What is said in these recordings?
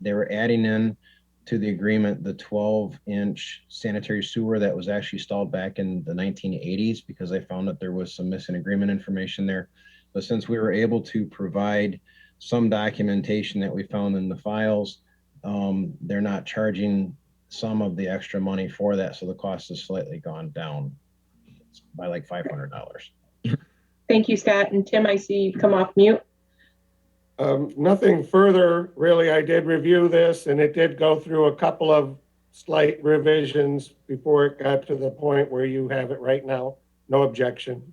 they were adding in to the agreement the 12 inch sanitary sewer that was actually stalled back in the 1980s because they found that there was some missing agreement information there. But since we were able to provide some documentation that we found in the files, um, they're not charging some of the extra money for that. So the cost has slightly gone down by like $500. Thank you, Scott. And Tim, I see you've come off mute. Um, nothing further, really. I did review this and it did go through a couple of slight revisions before it got to the point where you have it right now. No objection.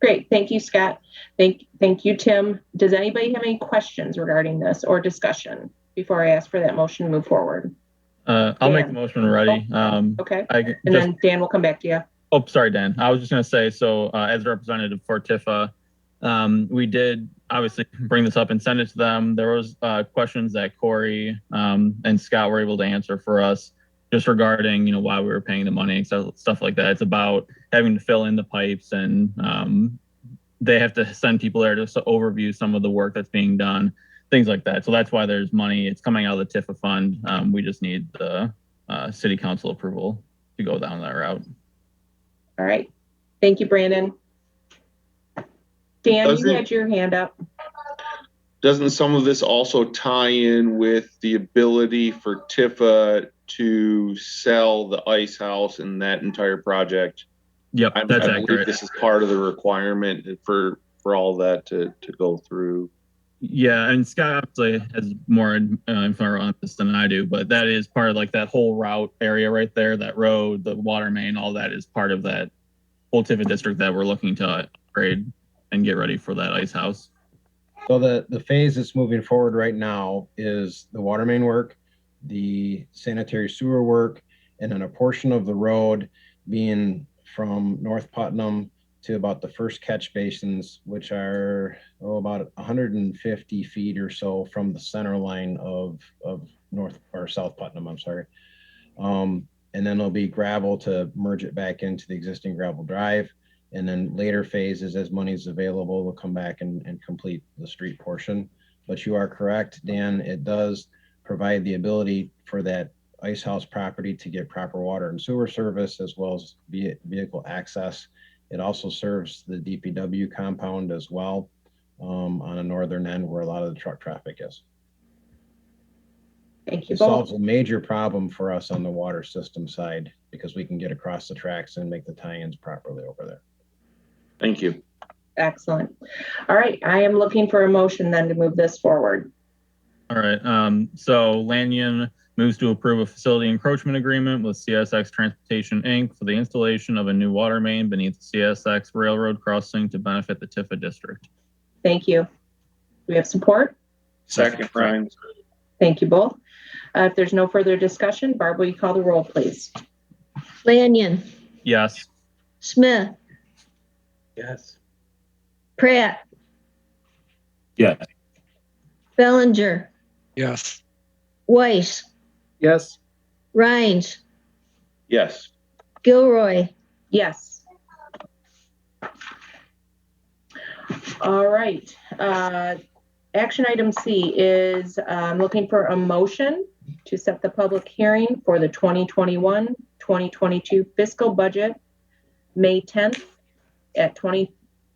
Great. Thank you, Scott. Thank, thank you, Tim. Does anybody have any questions regarding this or discussion before I ask for that motion to move forward? Uh, I'll make Dan. the motion already. Um, Okay. I And just, then Dan will come back to you. oh, sorry, Dan. I was just gonna say, so, uh, as a representative for Tifa, um, we did obviously bring this up and send it to them. There was, uh, questions that Corey, um, and Scott were able to answer for us just regarding, you know, why we were paying the money and stuff, stuff like that. It's about having to fill in the pipes and, um, they have to send people there to s- overview some of the work that's being done, things like that. So that's why there's money. It's coming out of the Tifa fund. Um, we just need the, uh, city council approval to go down that route. All right. Thank you, Brandon. Dan, you Doesn't- had your hand up. doesn't some of this also tie in with the ability for Tifa to sell the ice house and that entire project? Yep, I, that's I believe accurate. this is part of the requirement for for all that to, to go through. Yeah, and Scott obviously has more uh, info on this than I do, but that is part of like that whole route area right there, that road, the water main, all that is part of that whole Tiffin district that we're looking to upgrade and get ready for that ice house. So the, the phase that's moving forward right now is the water main work, the sanitary sewer work, and then a portion of the road being from North Putnam to about the first catch basins, which are, oh, about hundred and fifty feet or so from the center line of, of North, or South Putnam, I'm sorry. Um, and then there'll be gravel to merge it back into the existing gravel drive. And then later phases, as money's available, we'll come back and, and complete the street portion. But you are correct, Dan, it does provide the ability for that ice house property to get proper water and sewer service as well as ve- vehicle access. It also serves the DPW compound as well um, on a northern end where a lot of the truck traffic is. Thank you It both. solves a major problem for us on the water system side because we can get across the tracks and make the tie-ins properly over there. Thank you. Excellent. All right. I am looking for a motion then to move this forward. All right, um, so Lanyon moves to approve a facility encroachment agreement with CSX Transportation Inc. for the installation of a new water main beneath the CSX railroad crossing to benefit the Tifa district. Thank you. Do we have support? Second, Ryan. Thank you both. Uh, if there's no further discussion, Barb, will you call the roll, please? Lanyon, Yes. Smith, Yes. Pratt, Yes. Bellinger, Yes. Weiss, Yes. Rhines, Yes. Gilroy, Yes. All right. Uh, Action item C is um, looking for a motion to set the public hearing for the 2021-2022 fiscal budget, May 10th at 20,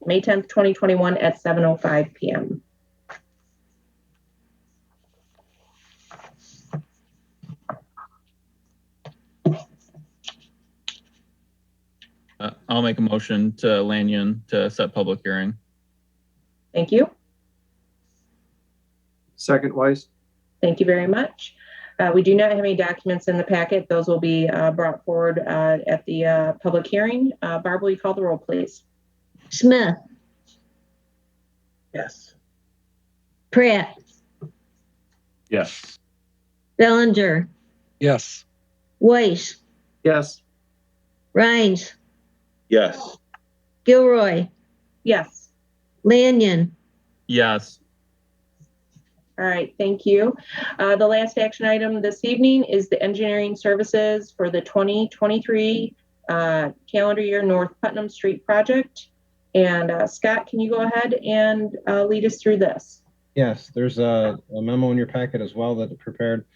May 10th, 2021 at 7:05 PM. Uh, I'll make a motion to Lanyon to set public hearing. Thank you. Second Weiss? Thank you very much. Uh, we do not have any documents in the packet. Those will be uh, brought forward uh, at the uh, public hearing. Uh, Barb, will you call the roll, please? Smith, Yes. Pratt, Yes. Bellinger, Yes. Weiss, Yes. Rhines, Yes. Gilroy, Yes. Lanyon, Yes. All right, thank you. Uh, the last action item this evening is the engineering services for the 2023 uh, calendar year North Putnam Street project. And uh, Scott, can you go ahead and uh, lead us through this? Yes, there's a a memo in your packet as well that prepared